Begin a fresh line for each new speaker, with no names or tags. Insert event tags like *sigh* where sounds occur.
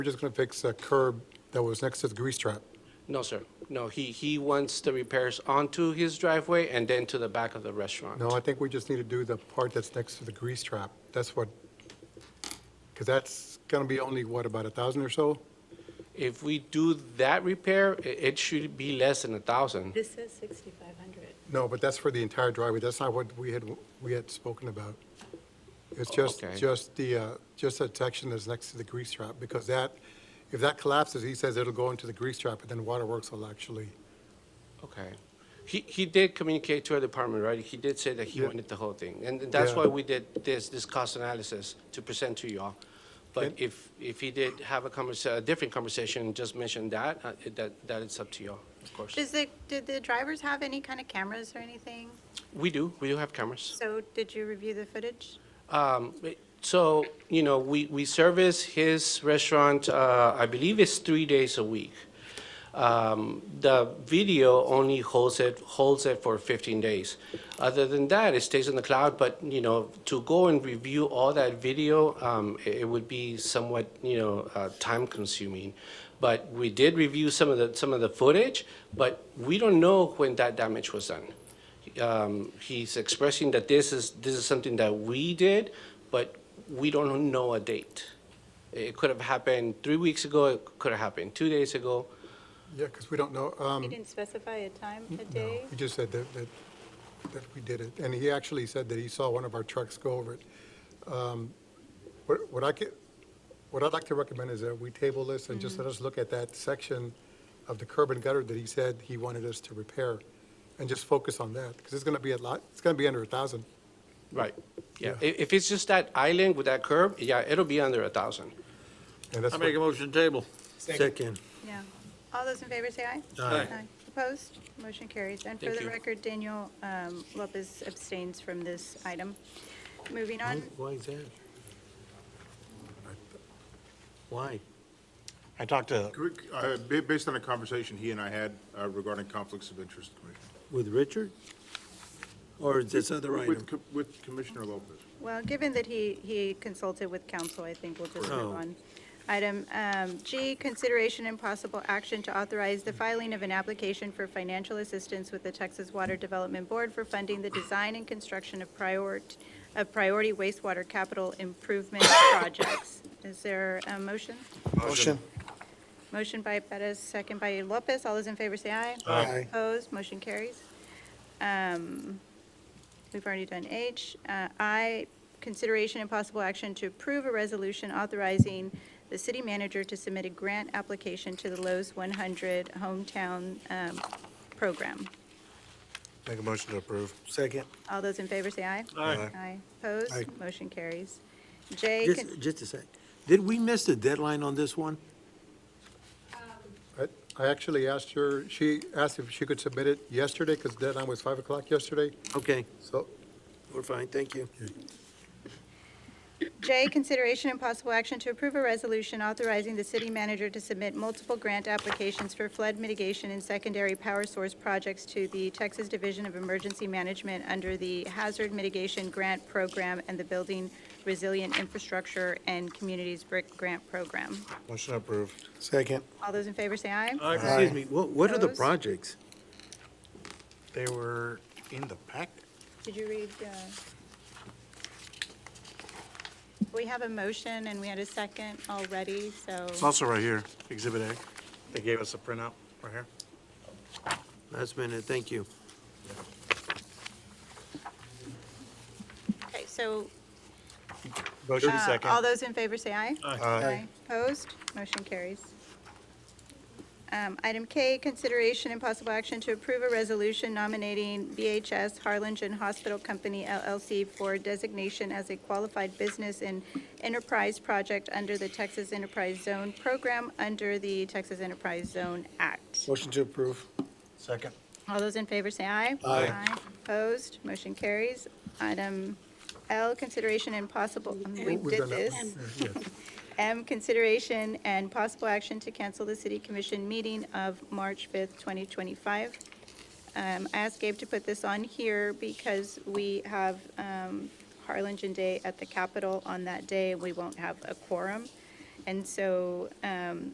We're just going to fix a curb that was next to the grease trap.
No, sir. No, he, he wants the repairs onto his driveway and then to the back of the restaurant.
No, I think we just need to do the part that's next to the grease trap. That's what, because that's going to be only, what, about a 1,000 or so?
If we do that repair, i- it should be less than a thousand.
This says 6,500.
No, but that's for the entire driveway. That's not what we had, we had spoken about. It's just,
Okay.
just the, uh, just that section that's next to the grease trap, because that, if that collapses, he says it'll go into the grease trap, and then waterworks will actually,
Okay. He, he did communicate to our department, right? He did say that he
Yeah.
wanted the whole thing. And that's
Yeah.
why we did this, this cost analysis to present to y'all. But
Okay.
if, if he did have a conversa, a different conversation, just mention that, uh, that, that it's up to y'all, of course.
Does the, did the drivers have any kind of cameras or anything?
We do, we do have cameras.
So did you review the footage?
Um, So, you know, we, we service his restaurant, uh, I believe it's three days a week. Um, The video only holds it, holds it for 15 days. Other than that, it stays in the cloud, but, you know, to go and review all that video, um, it it would be somewhat, you know, uh, time-consuming. But we did review some of the, some of the footage, but we don't know when that damage was done um, he's expressing that this is, this is something that we did, but we don't know a date. It could have happened three weeks ago, it could have happened two days ago.
yeah, because we don't know. um,
You didn't specify a time, a
No,
day?
he just said that, that, that we did it, and he actually said that he saw one of our trucks go over it. Um, What, what I could, what I'd like to recommend is that we table this and just let
Mm-hmm.
us look at that section of the curb and gutter that he said he wanted us to repair, and just focus on that, because it's gonna be a lot, it's gonna be under a thousand.
Right, yeah.
Yeah.
If, if it's just that island with that curb, yeah, it'll be under a thousand.
And that's
I
what-
make a motion to table.
Second.
No. All those in favor say aye.
Aye.
Opposed? Motion carries. And for
Thank
the
you.
record, Daniel um, Lopez abstains from this item. Moving on,
Why is that? Why?
I talked to,
Uh, ba- Based on a conversation he and I had uh, regarding conflicts of interest, Commissioner.
With Richard? Or is this other item?
With Co- With Commissioner Lopez.
well, given that he, he consulted with counsel, I think we'll just move
Oh.
on. Item um, G, consideration and possible action to authorize the filing of an application for financial assistance with the Texas Water Development Board for funding the design and construction of prior, of priority wastewater capital improvement *coughs* projects. Is there a motion?
Motion.
Motion by Perez, second by Lopez. All those in favor say aye.
Aye.
Opposed, motion carries. Um, We've already done H. Uh, I, consideration and possible action to approve a resolution authorizing the city manager to submit a grant application to the Lowe's 100 Hometown um, Program.
Make a motion to approve.
Second.
All those in favor say aye.
Aye.
Aye. Opposed?
Aye.
Motion carries. J,
Just,
con-
just a sec. Did we miss the deadline on this one?
I I actually asked her, she asked if she could submit it yesterday, because deadline was five o'clock yesterday,
Okay,
so
we're fine, thank you.
J, consideration and possible action to approve a resolution authorizing the city manager to submit multiple grant applications for flood mitigation and secondary power source projects to the Texas Division of Emergency Management under the Hazard Mitigation Grant Program and the Building Resilient Infrastructure and Communities Brick Grant Program.
Motion to approve.
Second.
All those in favor say aye.
Excuse me, what, what are the
Opposed?
projects?
They were in the packet.
Did you read? uh, We have a motion and we had a second already, so.
It's also right here, Exhibit A. They gave us a printout right here.
Last minute, thank you.
Okay, so
Motion
uh, all those in favor say aye.
Aye.
Opposed? Motion carries. Um, Item K, consideration and possible action to approve a resolution nominating BHS Harlingen Hospital Company LLC for designation as a qualified business and enterprise project under the Texas Enterprise Zone Program under the Texas Enterprise Zone Act.
Motion to approve. Second.
All those in favor say aye.
Aye.
Opposed? Motion carries. Item L, consideration and possible, we
we've
did
done that.
this.
Yes.
M, consideration and possible action to cancel the city commission meeting of March 5th, 2025. Um, I asked Gabe to put this on here because we have um, Harlingen Day at the Capitol on that day. We won't have a quorum. And so um,